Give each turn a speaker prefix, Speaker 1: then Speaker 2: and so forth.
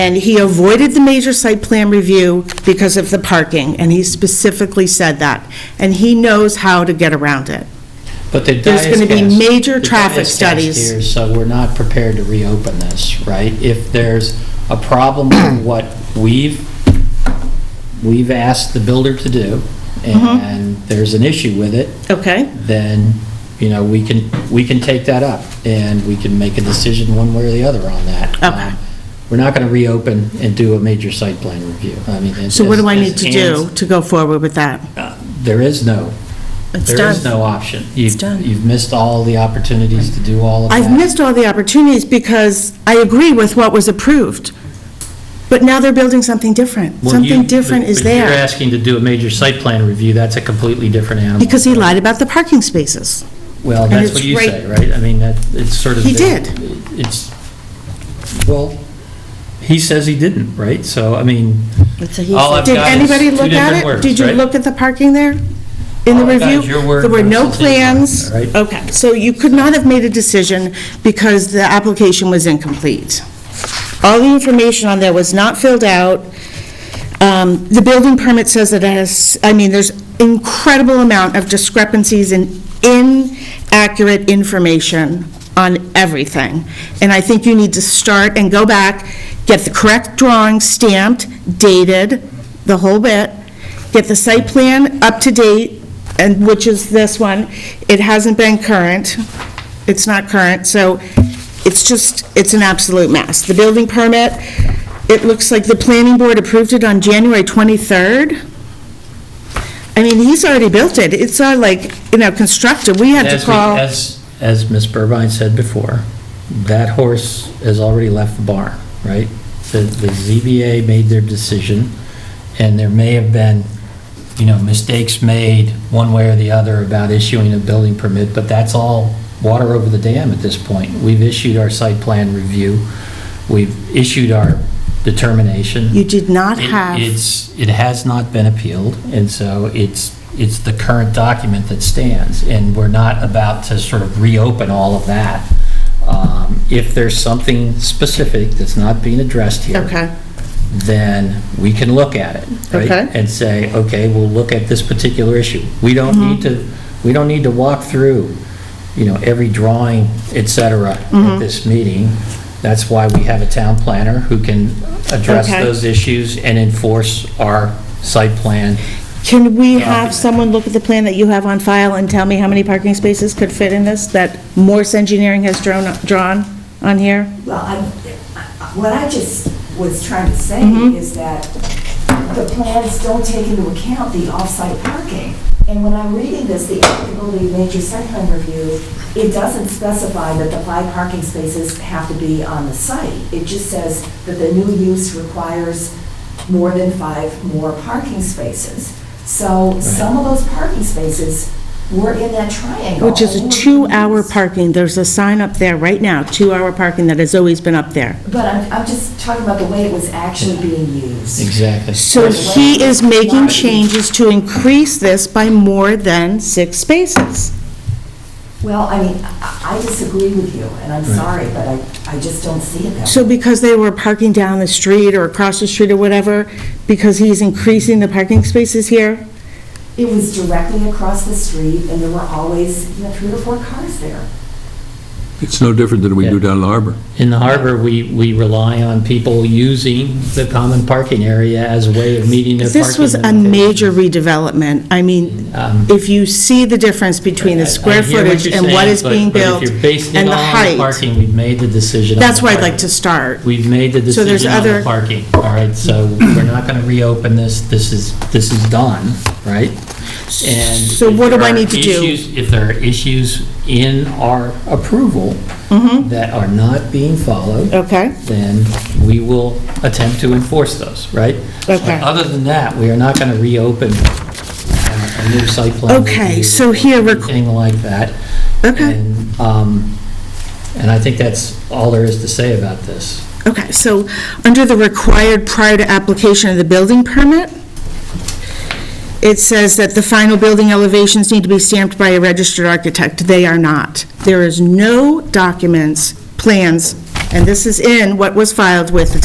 Speaker 1: And he avoided the major site plan review because of the parking, and he specifically said that. And he knows how to get around it.
Speaker 2: But the
Speaker 1: There's gonna be
Speaker 2: diocese-
Speaker 1: major
Speaker 2: the
Speaker 1: traffic
Speaker 2: diocese
Speaker 1: studies.
Speaker 2: here, So we're not prepared to reopen this, right? If there's a problem with what we've, we've asked the builder to do,
Speaker 1: Mm-hmm.
Speaker 2: and there's an issue with it,
Speaker 1: Okay?
Speaker 2: then, you know, we can, we can take that up, and we can make a decision one way or the other on that.
Speaker 1: Okay.
Speaker 2: Um, We're not going to reopen and do a major site plan review. I mean, it's-
Speaker 1: So what do I
Speaker 2: it's-
Speaker 1: need to
Speaker 2: it's-
Speaker 1: do to go forward with that?
Speaker 2: uh, There is no,
Speaker 1: It's
Speaker 2: there is
Speaker 1: done.
Speaker 2: no option. You've-
Speaker 1: done.
Speaker 2: You've missed all the opportunities to do all of that.
Speaker 1: I've missed all the opportunities because I agree with what was approved. But now they're building something different.
Speaker 2: Well, you-
Speaker 1: Something different
Speaker 2: but-
Speaker 1: is
Speaker 2: But you're
Speaker 1: there.
Speaker 2: asking to do a major site plan review, that's a completely different animal.
Speaker 1: Because he lied about the parking spaces.
Speaker 2: Well,
Speaker 1: and
Speaker 2: that's
Speaker 1: it's
Speaker 2: what you
Speaker 1: right-
Speaker 2: say, right? I mean, that, it's sort of.
Speaker 1: He
Speaker 2: the-
Speaker 1: did.
Speaker 2: It's, well, he says he didn't, right? So, I mean, All I've
Speaker 1: Did
Speaker 2: got is
Speaker 1: anybody
Speaker 2: two
Speaker 1: look at
Speaker 2: different
Speaker 1: it?
Speaker 2: words,
Speaker 1: Did you
Speaker 2: right?
Speaker 1: look at the parking there? In the
Speaker 2: All I've got
Speaker 1: review?
Speaker 2: is your word
Speaker 1: There were no
Speaker 2: versus his word,
Speaker 1: plans?
Speaker 2: all right?
Speaker 1: Okay, so you could not have made a decision because the application was incomplete. All the information on there was not filled out. Um, The building permit says that it has, I mean, there's incredible amount of discrepancies and inaccurate information on everything. And I think you need to start and go back, get the correct drawing stamped, dated, the whole bit, get the site plan up to date, and, which is this one. It hasn't been current. It's not current, so it's just, it's an absolute mess. The building permit, it looks like the planning board approved it on January 23rd. I mean, he's already built it. It's not like, you know, constructed. We had to
Speaker 2: As we-
Speaker 1: call.
Speaker 2: As, as Ms. Burbine said before, that horse has already left the barn, right? The, the ZBA made their decision, and there may have been, you know, mistakes made one way or the other about issuing a building permit, but that's all water over the dam at this point. We've issued our site plan review, we've issued our determination.
Speaker 1: You did not
Speaker 2: It-
Speaker 1: have,
Speaker 2: It's, it has not been appealed, and so it's, it's the current document that stands, and we're not about to sort of reopen all of that. Um, If there's something specific that's not being addressed here.
Speaker 1: okay,
Speaker 2: Then we can look at it, right?
Speaker 1: Okay.
Speaker 2: And say, okay, we'll look at this particular issue. We don't
Speaker 1: Mm-hmm.
Speaker 2: need to, we don't need to walk through, you know, every drawing, et cetera,
Speaker 1: Mm-hmm.
Speaker 2: at this meeting. That's why we have a town planner who can address
Speaker 1: Okay.
Speaker 2: those issues and enforce our site plan.
Speaker 1: Can we have someone look at the plan that you have on file and tell me how many parking spaces could fit in this that Morse Engineering has drawn, drawn on here?
Speaker 3: Well, I, I- what I just was trying to say
Speaker 1: Mm-hmm.
Speaker 3: is that the plans don't take into account the off-site parking. And when I'm reading this, the applicability of major site plan review, it doesn't specify that the five parking spaces have to be on the site. It just says that the new use requires more than five more parking spaces. So some of those parking spaces were in that triangle.
Speaker 1: Which is a two-hour parking, there's a sign up there right now, two-hour parking that has always been up there.
Speaker 3: But I'm, I'm just talking about the way it was actually being used.
Speaker 2: Exactly.
Speaker 1: So he is making changes to increase this by more than six spaces.
Speaker 3: Well, I mean, I I disagree with you, and I'm sorry, but I, I just don't see it that way.
Speaker 1: So because they were parking down the street or across the street or whatever, because he's increasing the parking spaces here?
Speaker 3: It was directly across the street, and there were always, you know, three or four cars there.
Speaker 4: It's no different than we do down in the harbor.
Speaker 2: In the harbor, we, we rely on people using the common parking area as a way of meeting their parking.
Speaker 1: This was a
Speaker 2: limitations.
Speaker 1: major redevelopment. I mean,
Speaker 2: Um,
Speaker 1: if you see the difference between
Speaker 2: I-
Speaker 1: the
Speaker 2: I
Speaker 1: square
Speaker 2: hear
Speaker 1: footage
Speaker 2: you're
Speaker 1: and what
Speaker 2: saying,
Speaker 1: is
Speaker 2: but-
Speaker 1: being
Speaker 2: but if
Speaker 1: built
Speaker 2: you're basing it
Speaker 1: and the
Speaker 2: all on
Speaker 1: height,
Speaker 2: Parking, we've made the decision. on
Speaker 1: that's
Speaker 2: the
Speaker 1: where I'd
Speaker 2: parking.
Speaker 1: like to start.
Speaker 2: We've made the
Speaker 1: So there's
Speaker 2: decision on the
Speaker 1: other-
Speaker 2: parking, all right? So we're not going to reopen this, this is, this is done, right? And
Speaker 1: So
Speaker 2: if
Speaker 1: what do
Speaker 2: there
Speaker 1: I
Speaker 2: are
Speaker 1: need to do?
Speaker 2: issues- If there are issues in our approval
Speaker 1: Mm-hmm.
Speaker 2: that are not being followed,
Speaker 1: Okay,
Speaker 2: then we will attempt to enforce those, right?
Speaker 1: Okay.
Speaker 2: But Other than that, we are not going to reopen uh, a new site plan.
Speaker 1: Okay,
Speaker 2: review
Speaker 1: so
Speaker 2: or
Speaker 1: here we're-
Speaker 2: Anything like that.
Speaker 1: Okay.
Speaker 2: And, um, And I think that's all there is to say about this.
Speaker 1: okay. So under the required prior to application of the building permit, it says that the final building elevations need to be stamped by a registered architect. They are not. There is no documents, plans, and this is in what was filed with the